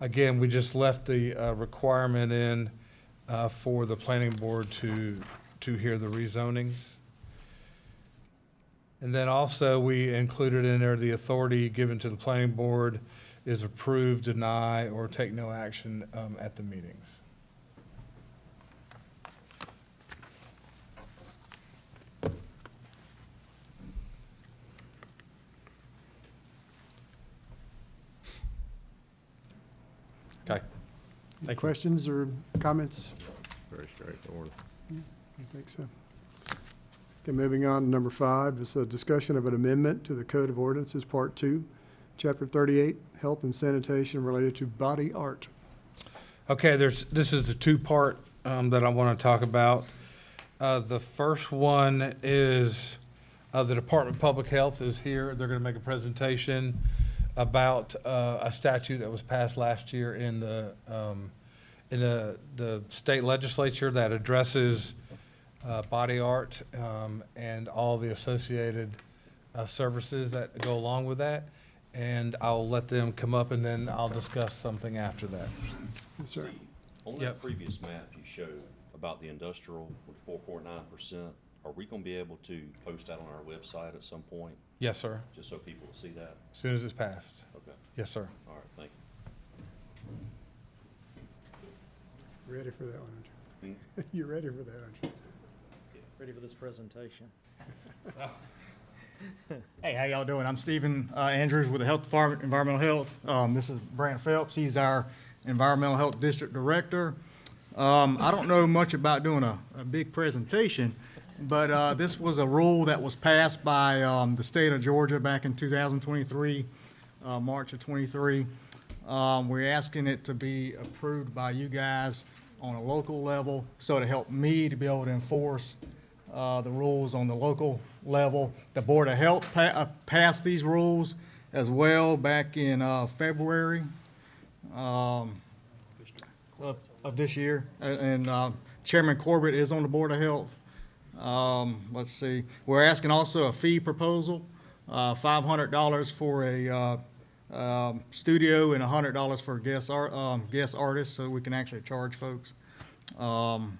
Again, we just left the uh, requirement in uh, for the planning board to, to hear the rezonings. And then also, we included in there the authority given to the planning board is approve, deny, or take no action um, at the meetings. Okay. Thank you. Questions or comments? Very straightforward. I think so. Okay, moving on to number five, is a discussion of an amendment to the Code of Ordinances, Part Two, Chapter thirty-eight, Health and Sanitation Related to Body Art. Okay, there's, this is a two-part um, that I want to talk about. Uh, The first one is, uh, the Department of Public Health is here. They're going to make a presentation about uh, a statute that was passed last year in the, um, in the, the state legislature that addresses uh, body art um, and all the associated uh, services that go along with that. And I'll let them come up, and then I'll discuss something after that. Yes, sir. On Yep. that previous map you showed about the industrial with four point nine percent, are we gonna be able to post that on our website at some point, Yes, sir. just so people will see that? As soon as it's passed. Okay, Yes, sir. all right, thank you. Ready for that one, aren't you? You're ready for that, aren't you? Ready for this presentation? Hey, how y'all doing? I'm Stephen uh, Andrews with the Health Department, Environmental Health. Um, This is Brant Phelps, he's our Environmental Health District Director. Um, I don't know much about doing a, a big presentation, but uh, this was a rule that was passed by um, the state of Georgia back in 2023, uh, March of '23. We're asking it to be approved by you guys on a local level, so to help me to be able to enforce uh, the rules on the local level. The Board of Health pa- uh, passed these rules as well back in uh, February um, of of this year. A- And uh, Chairman Corbett is on the Board of Health. Um, Let's see, we're asking also a fee proposal, uh, $500 for a uh, um, studio and $100 for guest ar- um, guest artists, so we can actually charge folks. Um,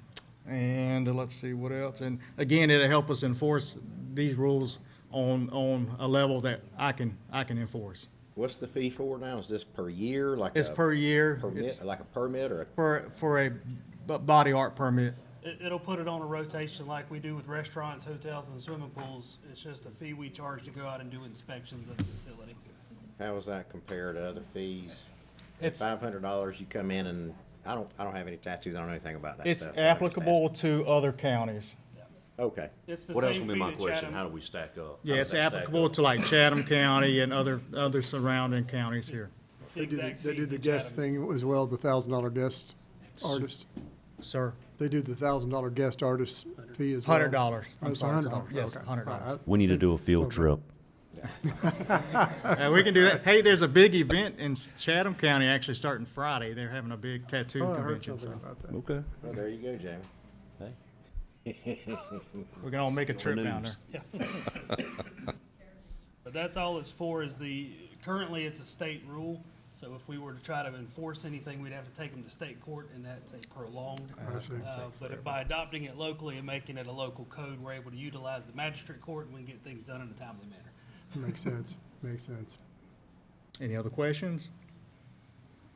and uh, let's see what else. And again, it'll help us enforce these rules on, on a level that I can, I can enforce. What's the fee for now? Is this per year, like? It's a per year. It's Permit, like a permit or? a- for, for a b- body art permit. It, it'll put it on a rotation like we do with restaurants, hotels, and swimming pools. It's just a fee we charge to go out and do inspections of the facility. How does that compare to other fees? It's, Five hundred dollars, you come in and, I don't, I don't have any tattoos, I don't know anything about that it's stuff. I'm just applicable to other counties. asking. Okay. It's the What else same gonna be fee my that question? How Chatham, do we stack up? Yeah, How it's does that stack applicable up? to like Chatham County and other, other surrounding counties here. it's the They do, the- exact they do fees the that guest Chatham. thing as well, the thousand dollar guest artist. Sir, They do the thousand dollar guest artist fee as well. hundred dollars. Oh, it's a hundred dollars. Yes, Okay. hundred All dollars. right. We need to do a field trip. Uh, we can do that. Hey, there's a big event in Chatham County actually starting Friday. They're having a big tattoo Oh, I heard convention, something so about that. Okay. Well, there you go, Jamie. we can all make a trip down there. But that's all it's for is the, currently it's a state rule. So if we were to try to enforce anything, we'd have to take them to state court and that's a prolonged. I see. Uh, But by adopting it locally and making it a local code, we're able to utilize the magistrate court and we can get things done in a timely manner. Makes sense, makes sense. Any other questions?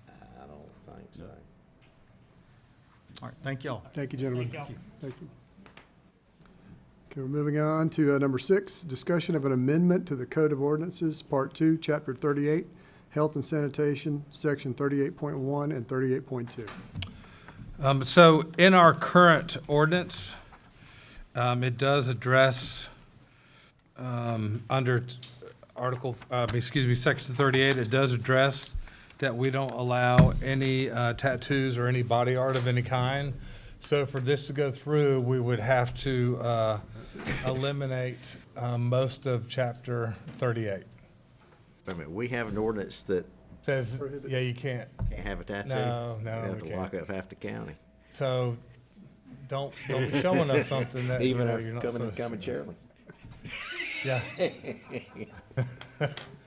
I don't think so. All right, thank y'all. Thank you, gentlemen. Thank y'all. Thank you. Okay, we're moving on to uh, number six, discussion of an amendment to the Code of Ordinances, Part Two, Chapter thirty-eight, Health and Sanitation, Section thirty-eight point one and thirty-eight point two. Um, so in our current ordinance, um, it does address, um, under t- Article, uh, excuse me, Section thirty-eight, it does address that we don't allow any, uh, tattoos or any body art of any kind. So for this to go through, we would have to, uh, eliminate, um, most of chapter thirty-eight. Wait a minute, we have an ordinance that Says, yeah, you can't. can't have a tattoo? No, no, We we have to lock can't. up half the county, So don't, don't be showing us something that, you even know, you're if not coming, supposed to. coming chairman. Yeah.